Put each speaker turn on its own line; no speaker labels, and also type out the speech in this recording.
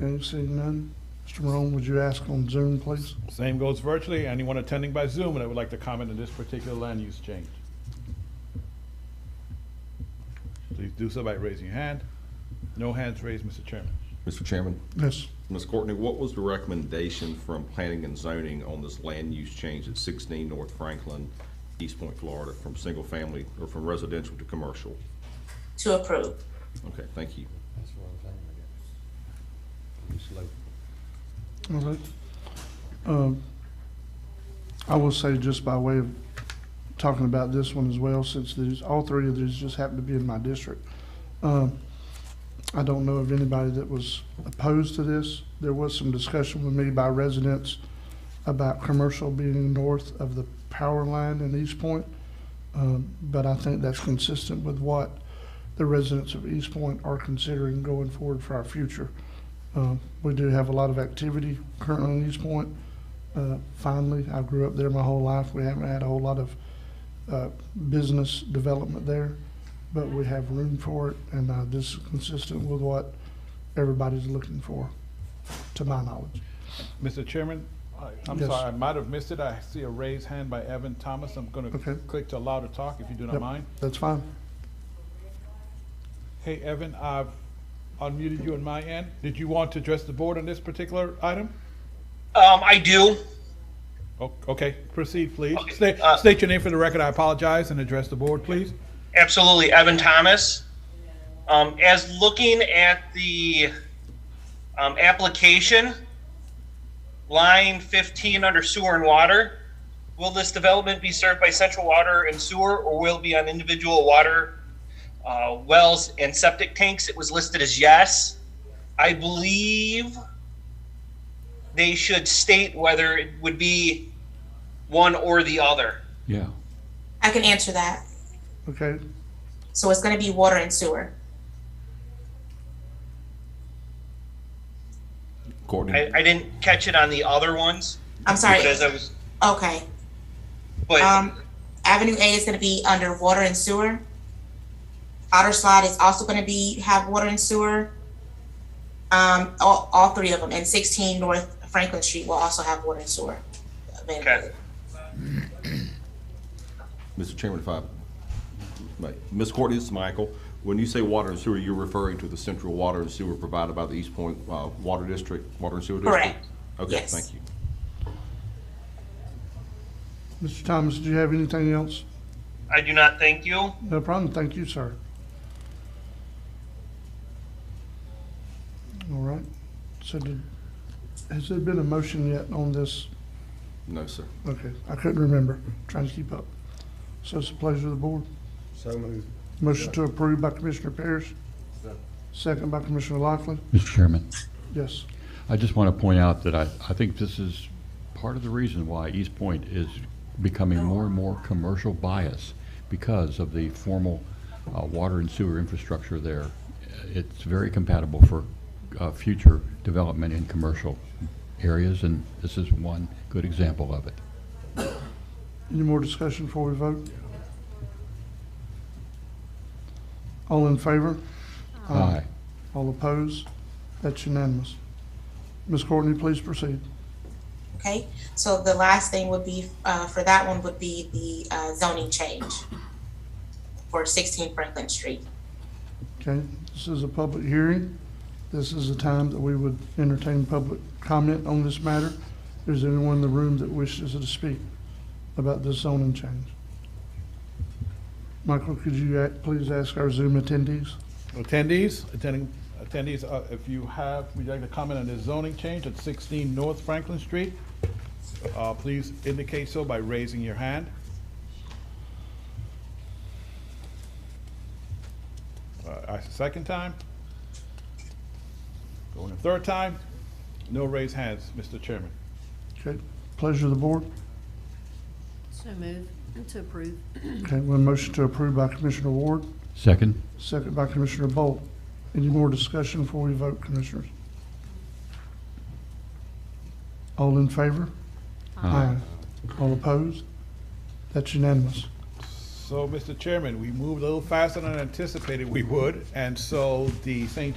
Okay, seeing none. Mr. Morone, would you ask on Zoom, please?
Same goes virtually. Anyone attending by Zoom that would like to comment on this particular land use change? Please do so by raising your hand. No hands raised, Mr. Chairman.
Mr. Chairman,
Yes.
Ms. Courtney, what was the recommendation from planning and zoning on this land use change at 16 North Franklin, East Point, Florida, from single family or from residential to commercial?
to approve,
Okay, thank you.
That's what I'm saying, I guess. It's slow.
All right. Um, I will say, just by way of talking about this one as well, since these, all three of these just happen to be in my district. Um, I don't know of anybody that was opposed to this. There was some discussion with me by residents about commercial being north of the power line in East Point. Um, But I think that's consistent with what the residents of East Point are considering going forward for our future. Uh, We do have a lot of activity currently in East Point. Uh, Finally, I grew up there my whole life. We haven't had a whole lot of uh, business development there, but we have room for it, and uh, this is consistent with what everybody's looking for, to my knowledge.
Mr. Chairman, I- I'm
Yes.
sorry, I might have missed it. I see a raised hand by Evan Thomas. I'm going to
Okay.
click to allow to talk if you do not
Yep.
mind.
That's fine.
Hey, Evan, I've unmuted you on my end. Did you want to address the board on this particular item?
Um, I do.
O- Okay, proceed, please.
Okay,
State
uh,
state your name for the record. I apologize, and address the board, please.
Absolutely. Evan Thomas. Um, as looking at the um, application, line 15 under sewer and water, will this development be served by central water and sewer or will it be on individual water uh, wells and septic tanks? It was listed as yes. I believe they should state whether it would be one or the other.
Yeah,
I can answer that.
Okay,
So it's gonna be water and sewer.
Courtney?
I, I didn't catch it on the other ones,
I'm sorry,
but as I was,
okay.
but
Um, Avenue A is gonna be under water and sewer. Outer Slide is also gonna be, have water and sewer. Um, all, all three of them, and sixteen North Franklin Street will also have water and sewer. available.
Okay.
Mr. Chairman, if I, may. Ms. Courtney, this is Michael. When you say water and sewer, you're referring to the central water and sewer provided by the East Point uh, Water District, Water and Sewer District?
Correct.
Okay,
Yes.
thank you.
Mr. Thomas, do you have anything else?
I do not thank you.
No problem, thank you, sir. All right, so did, has there been a motion yet on this?
No, sir.
Okay, I couldn't remember, trying to keep up. So it's the pleasure of the board.
So moved.
Motion to approve by Commissioner Parrish.
Second.
Second by Commissioner Lockley.
Mr. Chairman,
Yes,
I just want to point out that I, I think this is part of the reason why East Point is becoming more and more commercial bias because of the formal uh, water and sewer infrastructure there. It's very compatible for uh, future development in commercial areas, and this is one good example of it.
any more discussion before we vote? All in favor?
Aye.
All opposed? That's unanimous. Ms. Courtney, please proceed.
Okay, so the last thing would be, uh, for that one would be the, uh, zoning change for sixteen Franklin Street.
Okay, this is a public hearing. This is the time that we would entertain public comment on this matter. Is there anyone in the room that wishes to speak about this zoning change? Michael, could you act- please ask our Zoom attendees?
Attendees, attending, attendees, uh, if you have, would you like to comment on this zoning change at 16 North Franklin Street? Uh, Please indicate so by raising your hand. Uh, That's the second time. Going a third time. No raised hands, Mr. Chairman.
Okay, pleasure of the board.
So move to approve.
Okay, we have a motion to approve by Commissioner Ward,
Second?
second by Commissioner Bolt. Any more discussion before we vote, Commissioners? All in favor? Aye. All opposed? That's unanimous.
So, Mr. Chairman, we moved a little faster than anticipated we would, and so the St. James